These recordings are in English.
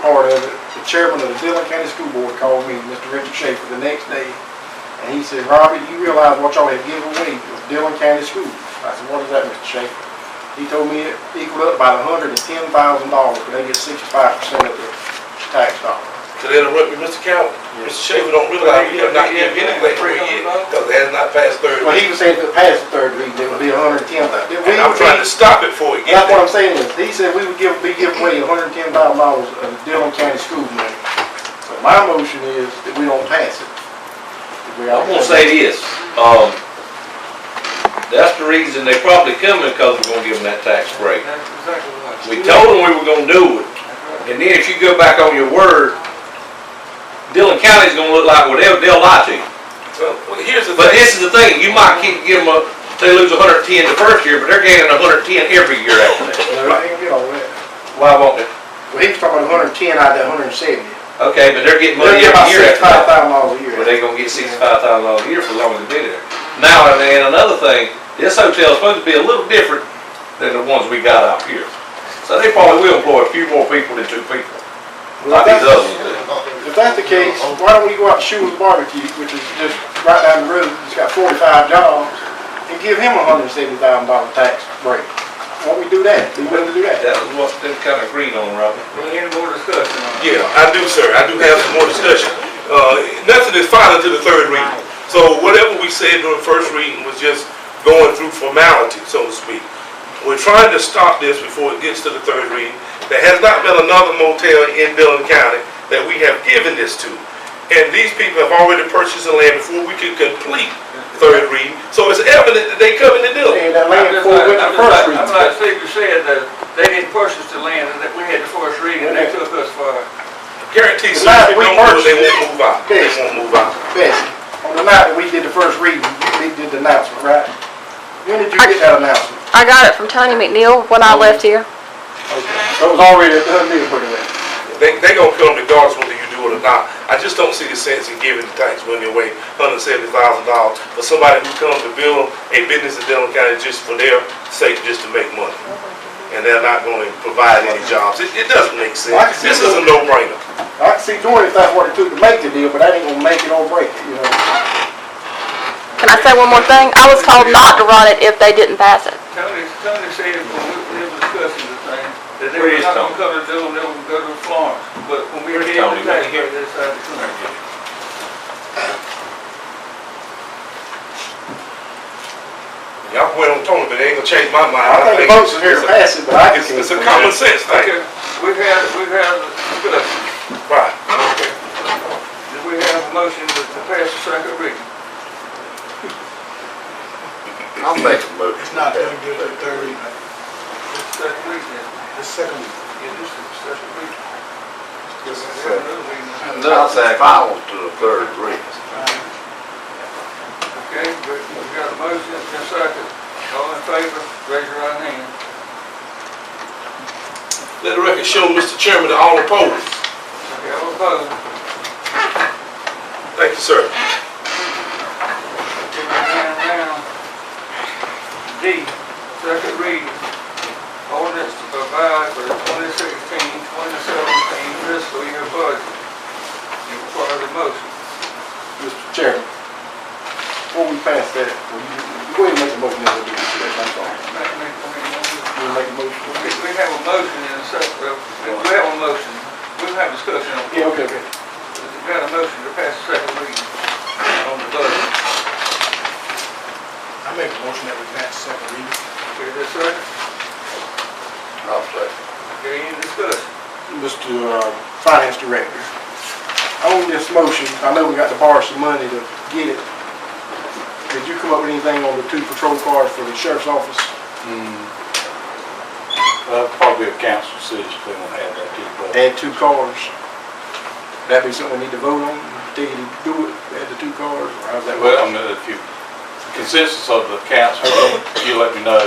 part of it, the chairman of the Dillon County School Board called me, Mr. Richard Schaefer, the next day. And he said, Robert, you realize what y'all have given away to Dillon County Schools? I said, what is that, Mr. Schaefer? He told me it equaled up about hundred and ten thousand dollars, but they get sixty-five percent of the tax dollar. To interrupt you, Mr. Calvin, Mr. Schaefer don't realize we have not given anything for a year, because it has not passed third Well, he reading. was saying if it passed the third reading, it would be a hundred and ten thousand. And I'm trying to stop it for a year. That's what I'm saying is, he said we would give, be giving away hundred and ten thousand dollars of Dillon County school money. So my motion is that we don't pass it. We I'm gonna say this, um, that's the reason they probably coming, cause we're gonna give them that tax break. That's exactly right. We told them we were gonna do it, and then if you go back on your word, Dillon County's gonna look like, well, they'll, they'll lie to you. Well, here's the But thing, this is the thing, you might keep giving them, a- they lose hundred and ten the first year, but they're gaining hundred and ten every year after that. No, they ain't get all that. Why won't they? Well, he was talking about hundred and ten out of that hundred and seventy. Okay, but they're getting They'll money get about every year after sixty-five that. thousand dollars a year. Well, they gonna get sixty-five thousand dollars a year for as long as they be there. Now, and then another thing, this hotel's supposed to be a little different than the ones we got out here. So they probably will employ a few more people than two people, Well, like if that's- these others do. If that's the case, why don't we go out to Shoe's Barbecue, which is just right down the road, it's got forty-five jobs, and give him a hundred and seventy thousand dollar tax break? Why don't we do that? Be willing to do that? That was what they kinda agreed on, Robert. Any more discussion on it? yeah, I do, sir, I do have some more discussion. Uh, nothing is final to the third reading. So whatever we said during the first reading was just going through formality, so to speak. We're trying to stop this before it gets to the third reading. There has not been another motel in Dillon County that we have given this to. And these people have already purchased the land before we could complete third reading. So it's evident that they coming to Dillon. And that I'm land just before like, we went I'm to just first like, reading. I'm like Steve said, that they didn't purchase the land, and that we had the first reading, and they took us for, Guaranteed, so Now, if we they don't do it, purchased they it. won't move out. They Yes. won't move out. Bessie, on the night that we did the first reading, we did the announcement, right? When did you get that announcement? I got it from Tony McNeil when I left here. Okay, So it was already a done deal pretty well. They, they gonna come regardless whether you do it or not. I just don't see the sense in giving the tax money away, hundred seventy thousand dollars, for somebody who comes to build a business in Dillon County just for their sake, just to make money. And they're not gonna provide any jobs. It, it doesn't make sense. This is a no-brainer. I can see doing if that's what it took to make the deal, but that ain't gonna make it or break it, you know? Can I say one more thing? I was told not to run it if they didn't pass it. Tony, Tony said, when we we were discussing the thing, that they Where were is not Tony? gonna come to Dillon, they were gonna go to Florence, but when we Where's came Tony? to tax, they decided to come. Y'all can wait on Tony, but it ain't gonna change my mind. I think the votes are here it's to a- pass it, but I It's, just can't. it's a see it. common sense thing. Okay, we've had, we've had, a discussion. Right. we have a motion to to pass the second reading. I'll make a motion. It's not gonna get to thirty, Second reading, the second. yeah, this is the second reading. This is We second. have another reading. I'll say final to the third reading. Okay, we we got a motion and a second. All in favor, raise your right hand. Let the record show, Mr. Chairman, that all opposed. Okay, all opposed? Thank you, sir. Put your hand down. D, second reading. Ordinance to provide for the 2016, 2017 fiscal year budget. You require the motion. Mr. Chairman, before we pass that, will you, you go ahead and make a motion, then we'll do this, that's all. Make- make- make- We'll make a motion. We we have a motion and a second, well, we have a motion. We have discussion on it. Yeah, okay, okay. We've got a motion to pass the second reading on the budget. I make a motion that we pass second reading. Okay, this second, I'll say. okay, any discussion? Mr. uh, Finance Director, on this motion, I know we got to borrow some money to get it. Did you come up with anything on the two patrol cars for the sheriff's office? That'll probably be a council decision if they want to have that too, Add two cars? That'd be something we need to vote on, do you do it, add the two cars, or how's that but, work? well, I mean, if you, consensus of the council, you let me know.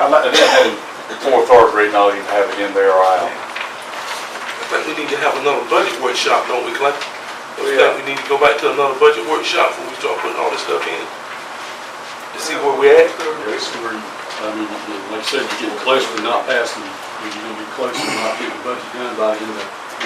I'd like And to, then, and for third reading, I'll even have it in there or out. I think we need to have another budget workshop, don't we, Clay? I think we need to go back to another budget workshop before we start putting all this stuff in. To see where we at. Yes, we're, I mean, like I said, we're getting closer to not passing, we're gonna be closer to not getting the budget done by the end of